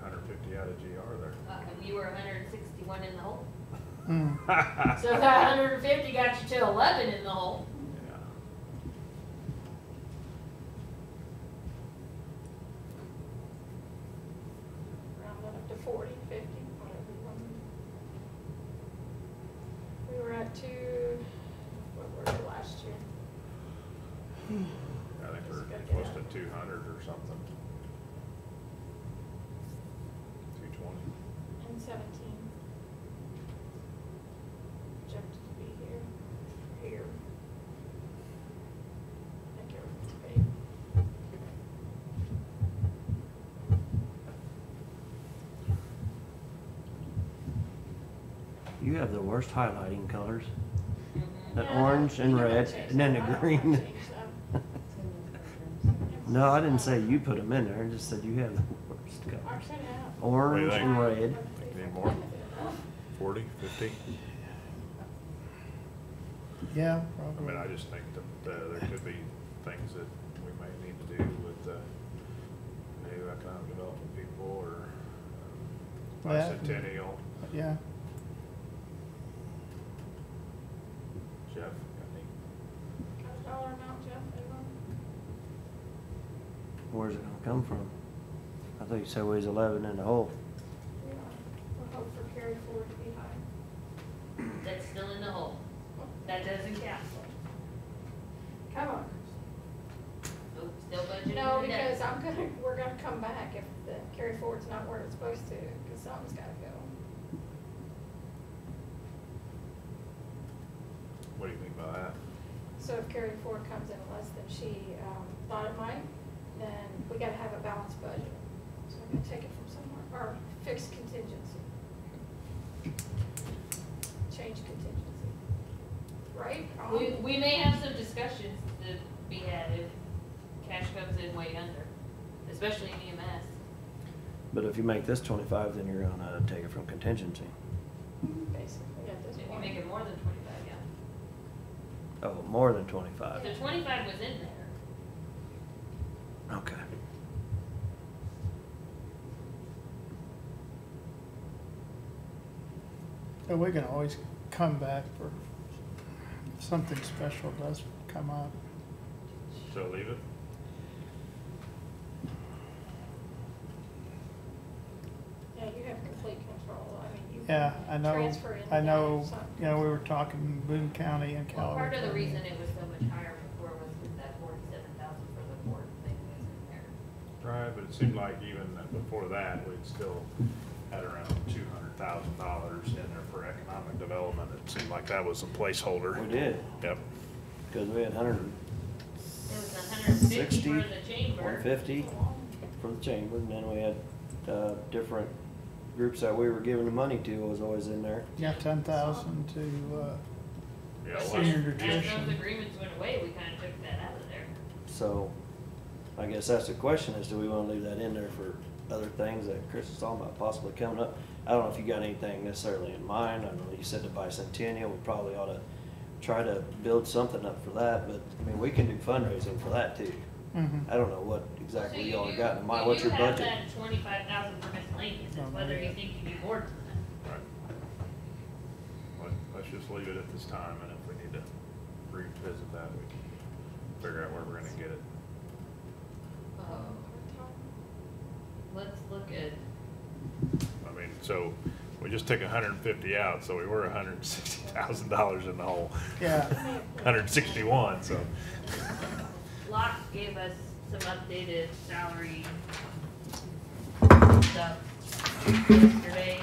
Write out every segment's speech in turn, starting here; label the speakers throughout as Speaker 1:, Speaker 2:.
Speaker 1: got a GR there.
Speaker 2: Uh, and you were hundred and sixty-one in the hole.
Speaker 3: Mm.
Speaker 2: So if that hundred and fifty got you to eleven in the hole,
Speaker 1: Yeah.
Speaker 4: round up to forty, fifty, whatever you want. We were at two, what were we last year?
Speaker 1: I think
Speaker 4: Just
Speaker 1: we're
Speaker 4: gotta get
Speaker 1: close to two hundred or something. Two twenty.
Speaker 4: And seventeen. Jumped to be here, here. I think everything's paid.
Speaker 5: You have the worst highlighting colors. That
Speaker 4: Yeah, I
Speaker 5: orange
Speaker 4: don't-
Speaker 5: and
Speaker 4: you don't
Speaker 5: red,
Speaker 4: change
Speaker 5: and then
Speaker 4: them.
Speaker 5: the
Speaker 4: I don't
Speaker 5: green.
Speaker 4: change them.
Speaker 5: No, I didn't say you put them in there. I just said you have the worst
Speaker 4: I
Speaker 5: colors.
Speaker 4: cut it out.
Speaker 5: Orange
Speaker 1: think?
Speaker 5: and red.
Speaker 1: Need more? Forty, fifty? I
Speaker 3: Yeah,
Speaker 1: mean, I
Speaker 3: probably.
Speaker 1: just think that, uh, there could be things that we might need to do with, uh, new economic development people or um,
Speaker 3: That-
Speaker 1: bicentennial.
Speaker 3: Yeah,
Speaker 1: Jeff, I think,
Speaker 4: Cut a dollar amount, Jeff, everyone?
Speaker 5: Where's it gonna come from? I thought you said we was eleven in the hole.
Speaker 4: We are, we'll hope for carry forward to be high.
Speaker 2: that's still in the hole. That doesn't count.
Speaker 4: Come on.
Speaker 2: Nope, still budgeted.
Speaker 4: No,
Speaker 2: in the
Speaker 4: because
Speaker 2: net.
Speaker 4: I'm gonna, we're gonna come back if the carry forward's not where it's supposed to, cause something's gotta go.
Speaker 1: what do you think about that?
Speaker 4: So if carry forward comes in less than she, um, thought it might, then we gotta have a balanced budget. So we're gonna take it from somewhere, or fix contingency. Change contingency. Right? Wrong?
Speaker 2: We, we may have some discussions to be had if cash comes in way under, especially in E EMS.
Speaker 5: But if you make this twenty-five, then you're gonna take it from contingency.
Speaker 4: Basically, at
Speaker 2: If
Speaker 4: this
Speaker 2: you
Speaker 4: point.
Speaker 2: make it more than twenty-five, yeah.
Speaker 5: Oh, more than twenty-five.
Speaker 2: So twenty-five was in there.
Speaker 5: Okay.
Speaker 3: and we can always come back for if something special does come up.
Speaker 1: So leave it?
Speaker 4: Yeah, you have complete control, I mean, you. can
Speaker 3: Yeah, I know,
Speaker 4: Transfer in.
Speaker 3: I
Speaker 4: and
Speaker 3: know,
Speaker 4: out, so-
Speaker 3: you know, we were talking Boone County and
Speaker 2: Well,
Speaker 3: California.
Speaker 2: part of the reason it was so much higher before was because that forty-seven thousand for the board thing was in there.
Speaker 1: Right, but it seemed like even before that, we'd still had around two hundred thousand dollars in there for economic development. It seemed like that was a placeholder.
Speaker 5: We did,
Speaker 1: Yep.
Speaker 5: because we had hundred and
Speaker 2: It was a hundred and fifty
Speaker 5: sixty,
Speaker 2: for the chamber.
Speaker 5: one fifty for the chamber, and then we had, uh, different groups that we were giving the money to was always in there.
Speaker 3: Yeah, ten thousand to, uh,
Speaker 1: Yeah,
Speaker 2: But
Speaker 1: well,
Speaker 3: Senior
Speaker 2: as- As
Speaker 3: nutrition.
Speaker 2: those agreements went away, we kind of took that out of there.
Speaker 5: So, I guess that's the question, is do we wanna leave that in there for other things that Chris is talking about possibly coming up? I don't know if you got anything necessarily in mind, I know you said the bicentennial, we probably oughta try to build something up for that, but, I mean, we can do fundraising for that too.
Speaker 3: mhm.
Speaker 5: I don't know what
Speaker 2: So
Speaker 5: exactly
Speaker 2: you
Speaker 5: y'all
Speaker 2: do-
Speaker 5: got in mind,
Speaker 2: you
Speaker 5: what's
Speaker 2: do
Speaker 5: your
Speaker 2: have
Speaker 5: budget?
Speaker 2: that Twenty-five thousand for miscellaneous,
Speaker 3: Don't
Speaker 2: it's
Speaker 3: know
Speaker 2: whether you
Speaker 3: yet.
Speaker 2: think you need more than that.
Speaker 1: right. Let- Let's just leave it at this time, and if we need to revisit that, we can figure out where we're gonna get it.
Speaker 2: Um, Let's look at,
Speaker 1: I mean, so we just took a hundred and fifty out, so we were a hundred and sixty thousand dollars in the hole.
Speaker 3: Yeah,
Speaker 1: Hundred and sixty-one, so.
Speaker 2: Locke gave us some updated salary stuff yesterday.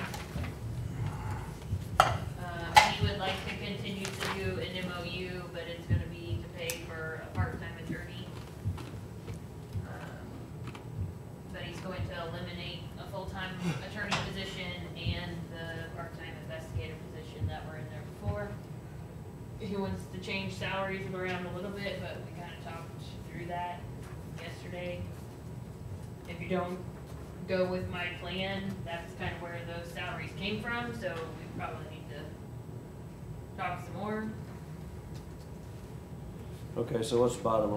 Speaker 2: Um, he would like to continue to do an MOU, but it's gonna be to pay for a part-time attorney. Um, But he's going to eliminate a full-time attorney position and the part-time investigator position that were in there before he wants to change salaries around a little bit, but we kinda talked through that yesterday. If you don't go with my plan, that's kinda where those salaries came from, so we probably need to talk some more.
Speaker 5: Okay, so what's the bottom line?